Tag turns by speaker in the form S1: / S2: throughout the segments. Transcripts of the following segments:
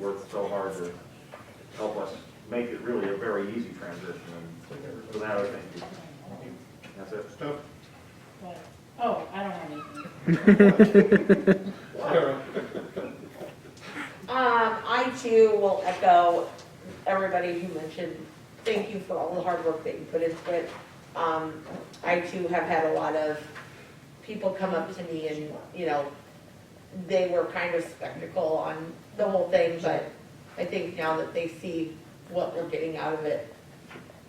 S1: worked so hard to help us make it really a very easy transition, and for that, I thank you. That's it.
S2: Stuff.
S3: But, oh, I don't have anything.
S4: Um, I too will echo everybody who mentioned, thank you for all the hard work that you put into it. Um, I too have had a lot of people come up to me and, you know, they were kind of skeptical on the whole thing, but I think now that they see what we're getting out of it,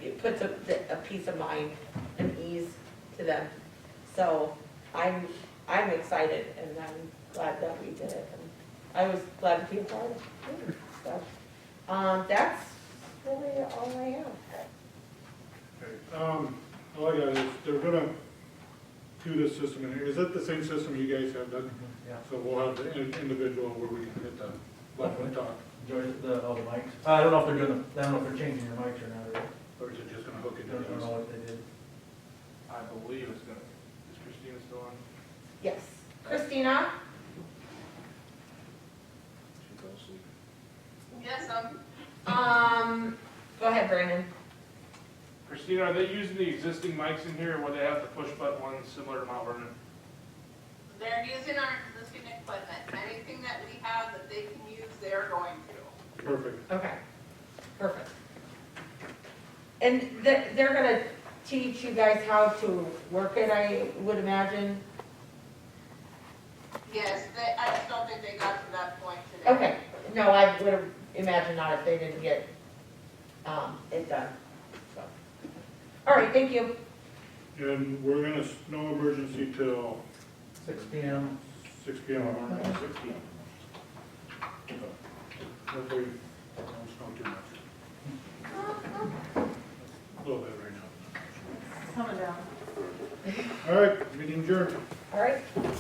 S4: it puts a, a peace of mind and ease to them. So I'm, I'm excited and I'm glad that we did it. And I was glad to be a part of it. So, Um, that's really all I have.
S2: Okay, Um, all I got is, they're gonna do this system in here, is that the same system you guys have done?
S5: Yeah.
S2: So we'll have the in- individual where we can hit the button and talk,
S5: Joy- the, oh, the mics. I don't know if they're doing, the- I don't know if they're changing their mics or not, or, I
S2: or is it just gonna hook it to
S5: don't know
S2: us?
S5: what they did.
S6: I believe it's gonna, is Christina still on?
S4: Yes. Christina?
S6: She fell asleep.
S4: Yes, I'm. Um, go ahead, Brandon.
S6: Christina, are they using the existing mics in here, or will they have to push button ones similar to Mount Vernon?
S7: They're using our existing equipment. Anything that we have that they can use, they're going to.
S2: Perfect.
S4: Okay, perfect. And th- they're gonna teach you guys how to work it, I would imagine?
S7: Yes, they, I just don't think they got to that point today.
S4: Okay, no, I would have imagined not if they didn't get, um, it done, so. All right, thank you.
S2: And we're gonna, s- no emergency till
S5: Six P M,
S2: six P M tomorrow night, six P M. Hopefully, it don't snow too much. A little bit right now.
S3: Coming down.
S2: All right, meeting adjourned.
S4: All right,